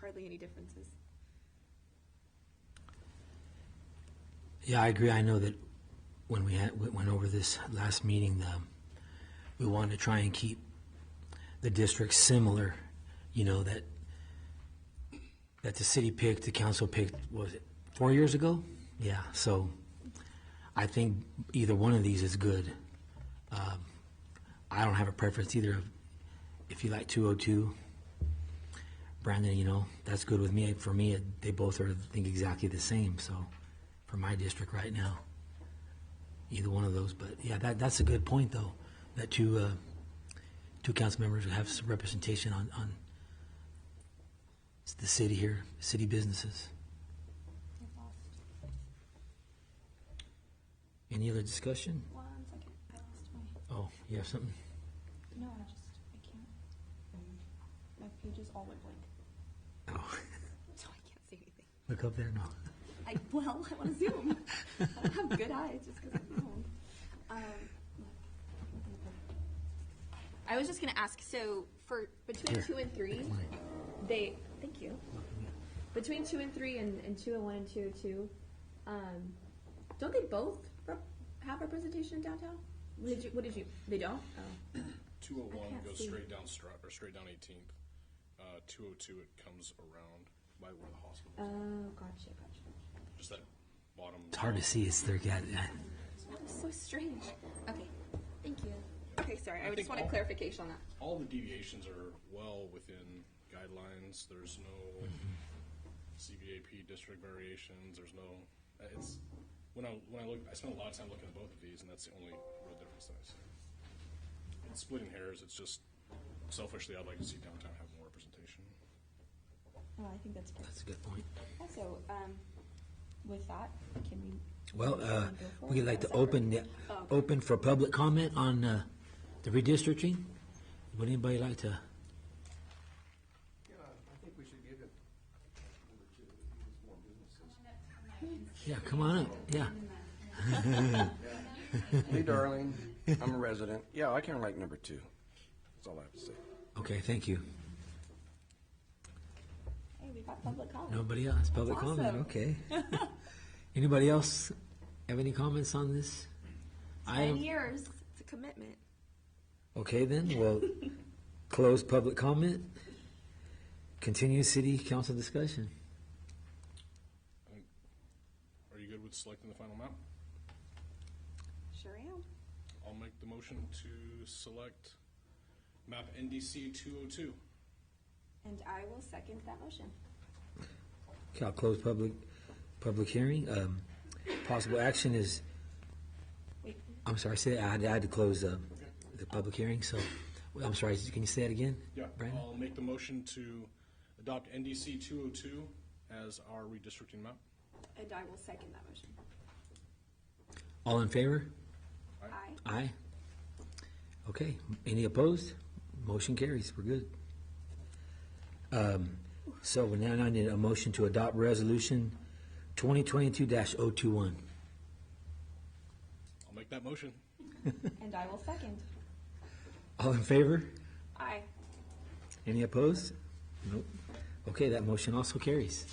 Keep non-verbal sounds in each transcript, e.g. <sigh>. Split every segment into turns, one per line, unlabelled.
hardly any differences.
Yeah, I agree. I know that when we had, we went over this last meeting, um, we wanted to try and keep the districts similar, you know, that, that the city picked, the council picked, what was it four years ago? Yeah, so I think either one of these is good. Um, I don't have a preference either of, if you like two oh two, Brandon, you know, that's good with me. For me, it- they both are, I think, exactly the same, so, for my district right now. Either one of those, but yeah, that, that's a good point, though, that two, uh, two council members have some representation on, on the city here, city businesses. Any other discussion?
One second, I lost my,
Oh, you have something?
no, I just, I can't. My pages all went <laughs> blank,
Oh,
so I can't see anything.
look up there, no.
I, well, I want to zoom. I don't have good eyes just because I'm old. Um, I was just going to ask, so for between
Here.
two and three, they, thank you. Between two and three and, and two and one and two and two, um, don't they both rep- have representation in downtown? What did you, what did you, they don't? Oh.
Two oh
I
one
can't
goes
see.
straight down Stroud, or straight down Eighteenth. Uh, two oh two, it comes around by where the hospital is,
Oh, gotcha, gotcha.
just that bottom.
It's hard to see, it's there, yeah, yeah.
That was so strange. Okay, thank you. Okay, sorry, I
I
just
think
want a
all-
clarification on that.
All the deviations are well within guidelines, there's no CVAP district variations, there's no, uh, it's, when I, when I look, I spent a lot of time looking at both of these, and that's the only real difference that I see. And splitting hairs, it's just selfishly, I'd like to see downtown have more representation.
Oh, I think that's good.
That's a good point.
Also, um, with that, can we?
Well, uh,
Go for
we'd
it.
like
Oh,
to
sorry.
open, the- open for public comment on uh, the redistricting. Would anybody like to,
Yeah, I think we should give it number two, because more businesses.
yeah, come on up, yeah.
Lee Darling, I'm a resident. Yeah, I kind of like number two. That's all I have to say.
Okay, thank you.
Hey, we got public comment.
Nobody else, public comment,
Awesome.
okay. Anybody else have any comments on this?
Ten
I,
years, it's a commitment.
okay then, we'll close public comment. Continue city council discussion.
Are you good with selecting the final map?
Sure am.
I'll make the motion to select map NDC two oh two.
And I will second that motion.
Okay, I'll close public, public hearing. Um, Possible action is,
Wait,
I'm sorry, say, I had I had to close uh, the public hearing, so, well, I'm sorry, can you say that again?
Yeah,
Brandon?
I'll make the motion to adopt NDC two oh two as our redistricting map.
and I will second that motion.
All in favor?
Aye.
Aye. Okay, any opposed? Motion carries, we're good. Um, So we now I need a motion to adopt resolution twenty twenty-two oh 21
I'll make that motion.
And I will second.
All in favor?
Aye.
Any opposed? Nope. Okay, that motion also carries.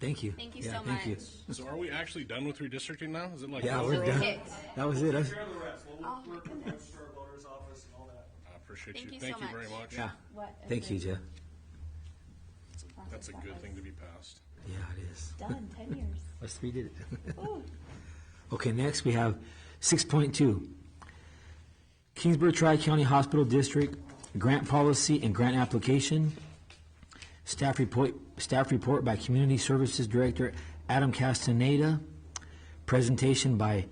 Thank you.
Thank you
Yeah,
so
thank you.
much.
So are we actually done with redistricting now? Is it like?
Yeah, we're
over?
done.
Kicked.
That was it. I-
Care of the rest, we'll
Oh, my
work with the
goodness.
registrar of voters office and all that.
I appreciate
Thank you
you.
so
Thank you very
much.
much.
Yeah,
What a
thank you,
great
Jeff.
That's a
process
good
that
thing to
was.
be passed.
Yeah, it is.
Done, ten years.
Us three did it.
Ooh.
<laughs> Okay, next we have six point two. Kingsburg Tri-County Hospital District Grant Policy and Grant Application. Staff report, staff report by Community Services Director Adam Castaneda. Presentation by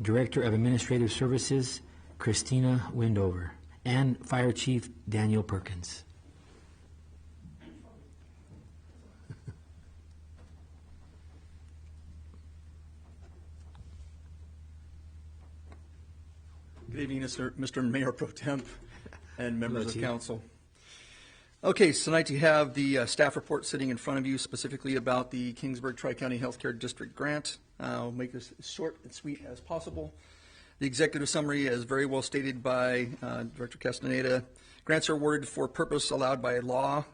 Director of Administrative Services Christina Windover and Fire Chief Daniel Perkins.
Good evening, Mr. Mr. Mayor Pro Temp and members
Hello,
of
Chief.
council. Okay, so tonight you have the uh, staff report sitting in front of you specifically about the Kingsburg Tri-County Healthcare District Grant. Uh, I'll make this as short and sweet as possible. The executive summary is very well stated by uh, Director Castaneda. Grants are awarded for purpose allowed by law